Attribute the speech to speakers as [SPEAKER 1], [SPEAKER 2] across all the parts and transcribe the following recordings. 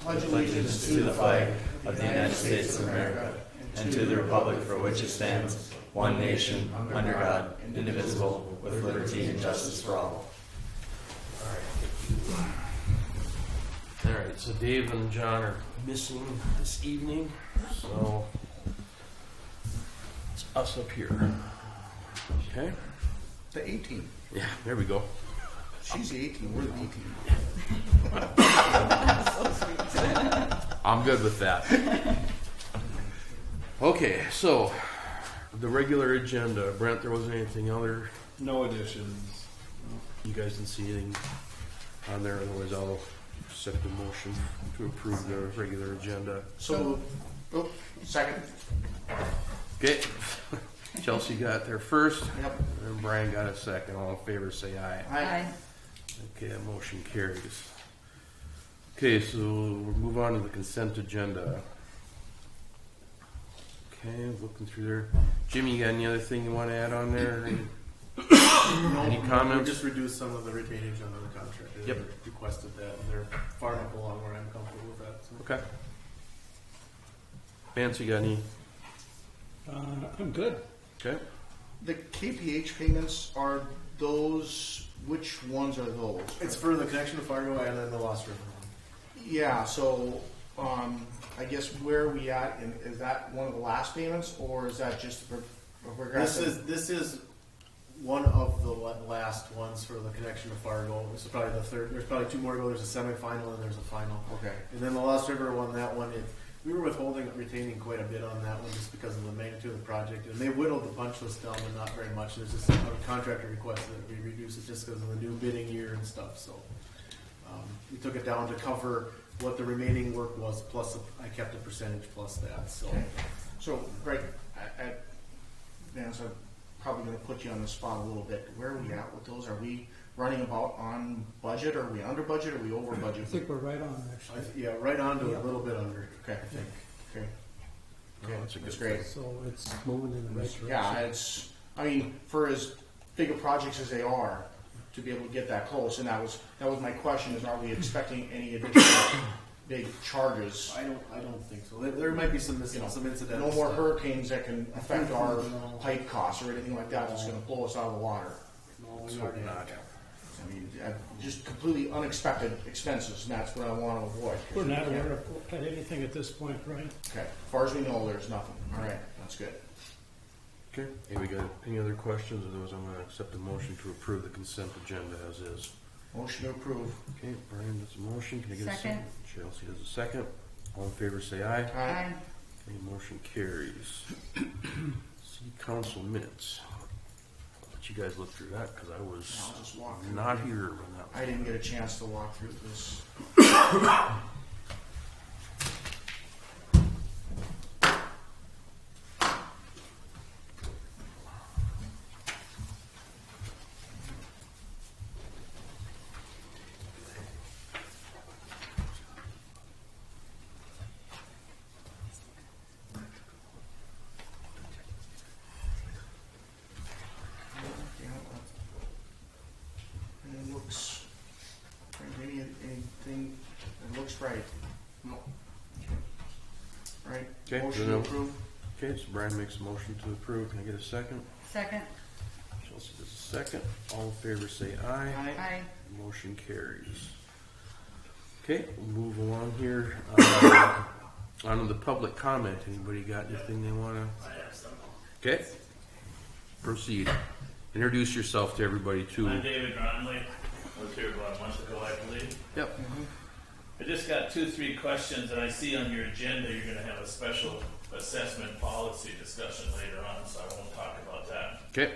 [SPEAKER 1] pledge allegiance to the flag of the United States of America and to the republic for which it stands, one nation, under God, indivisible, with liberty and justice for all.
[SPEAKER 2] All right, so Dave and John are missing this evening, so it's us up here. Okay?
[SPEAKER 1] The eighteen,
[SPEAKER 2] Yeah, there we go.
[SPEAKER 1] she's the eighteen, we're the eighteen.
[SPEAKER 2] I'm good with that. okay, so the regular agenda. Brent, there wasn't anything other.
[SPEAKER 3] No additions.
[SPEAKER 2] You guys didn't see anything on there, otherwise I'll accept the motion to approve the regular agenda.
[SPEAKER 1] So, oh, second,
[SPEAKER 2] Okay. Chelsea got there first,
[SPEAKER 1] yep,
[SPEAKER 2] and Brian got a second. All in favor, say aye.
[SPEAKER 1] aye.
[SPEAKER 2] Okay, that motion carries. Okay, so we'll move on to the consent agenda. Okay, looking through there. Jimmy, you got any other thing you wanna add on there? Any
[SPEAKER 3] We
[SPEAKER 2] comments?
[SPEAKER 3] just reduced some of the retainage under the contract. They
[SPEAKER 2] Uh, Yep.
[SPEAKER 3] Requested that, and they're far enough along where I'm comfortable with that. so.
[SPEAKER 2] Okay. Vance, you got any?
[SPEAKER 4] Uh, I'm good.
[SPEAKER 2] Okay,
[SPEAKER 1] The KPH payments are those, which ones are those?
[SPEAKER 3] It's for the connection to Fargo and then the Lost River.
[SPEAKER 1] Yeah, so, um, I guess where are we at, and is that one of the last payments, or is that just the pro-
[SPEAKER 3] This
[SPEAKER 1] progressive?
[SPEAKER 3] is, this is one of the la- last ones for the connection to Fargo. This is probably the third, there's probably two more to go. There's a semifinal and there's a final.
[SPEAKER 1] Okay,
[SPEAKER 3] And then the Lost River won that one. It, we were withholding, retaining quite a bit on that one just because of the magnitude of the project. And they whittled the punch list down, but not very much. There's just a contractor request that we reduce it just because of the new bidding year and stuff. So um, we took it down to cover what the remaining work was, plus I kept a percentage plus that. So
[SPEAKER 1] okay. So, Greg, I, I, Vance, I'm probably gonna put you on the spot a little bit. Where are we at with those? Are we running about on budget? Are we under budget? Are we over
[SPEAKER 4] I think
[SPEAKER 1] budget?
[SPEAKER 4] we're right on,
[SPEAKER 3] I,
[SPEAKER 4] actually.
[SPEAKER 3] yeah, right on to
[SPEAKER 4] Yeah.
[SPEAKER 3] a little bit under.
[SPEAKER 1] Okay,
[SPEAKER 3] I think.
[SPEAKER 1] okay. Okay,
[SPEAKER 2] that's a good
[SPEAKER 1] great.
[SPEAKER 4] So it's moving in the right direction.
[SPEAKER 1] Yeah, it's, I mean, for as big a projects as they are, to be able to get that close, and that was, that was my question, is are we expecting any additional big charges?
[SPEAKER 3] I don't. I don't think so. There, there might be some mis-
[SPEAKER 1] You know,
[SPEAKER 3] some incidental.
[SPEAKER 1] No more
[SPEAKER 3] stuff.
[SPEAKER 1] hurricanes that can affect our
[SPEAKER 3] No.
[SPEAKER 1] pipe costs or anything like that that's gonna blow us out of the water.
[SPEAKER 3] No,
[SPEAKER 2] let's
[SPEAKER 3] we
[SPEAKER 2] hope
[SPEAKER 3] already
[SPEAKER 2] not.
[SPEAKER 1] I mean, uh, just completely unexpected expenses, and that's what I wanna avoid.
[SPEAKER 4] We're not aware of of anything at this point, right?
[SPEAKER 1] Okay, as far as we know, there's nothing, all right, that's good.
[SPEAKER 2] okay. Hey, we got any other questions? Otherwise, I'm gonna accept the motion to approve the consent agenda as is.
[SPEAKER 1] Motion to approve.
[SPEAKER 2] Okay, Brian does a motion. Can I get a second?
[SPEAKER 5] Second.
[SPEAKER 2] Chelsea does a second. All in favor, say aye.
[SPEAKER 1] Aye.
[SPEAKER 2] Okay, motion carries. City council minutes. I'll Let you guys look through that, cause I was
[SPEAKER 1] I'll just walk through.
[SPEAKER 2] not here when that was.
[SPEAKER 1] I didn't get a chance to walk through this. And it looks, maybe anything, it looks right. No. Right?
[SPEAKER 2] Okay,
[SPEAKER 1] Motion
[SPEAKER 2] no.
[SPEAKER 1] to approve?
[SPEAKER 2] Okay, so Brian makes a motion to approve. Can I get a second?
[SPEAKER 5] Second,
[SPEAKER 2] Chelsea does a second. All in favor, say aye.
[SPEAKER 5] aye.
[SPEAKER 2] Motion carries. Okay, we'll move along here. Uh, On to the public comment. Anybody got anything they wanna? Okay. Proceed. Introduce yourself to everybody
[SPEAKER 6] I'm
[SPEAKER 2] too.
[SPEAKER 6] David Gromley. I was here about a month ago, I believe.
[SPEAKER 2] Yep.
[SPEAKER 6] I just got two, three questions, and I see on your agenda you're going to have a special assessment policy discussion later on, so I won't talk about that.
[SPEAKER 2] Okay.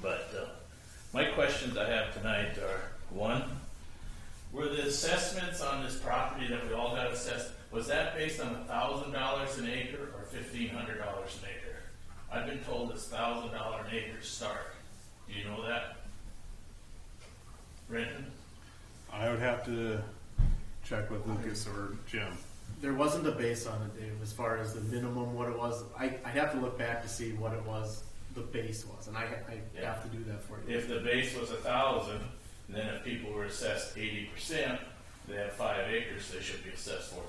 [SPEAKER 6] But uh, my questions I have tonight are one, were the assessments on this property that we all got assessed, was that based on thousand dollars an acre or fifteen hundred dollars an acre? I've been told it's thousand dollar an acre start. Do you know that? Renton?
[SPEAKER 7] I would have to check with Lucas or Jim.
[SPEAKER 3] There wasn't a base on it, Dave, as far as the minimum, what it was. I, I have to look back to see what it was, the base was, and I, I
[SPEAKER 6] Yeah.
[SPEAKER 3] have to do that for you.
[SPEAKER 6] If the base was a thousand, then if people were assessed eighty percent, they have five acres, they should be assessed four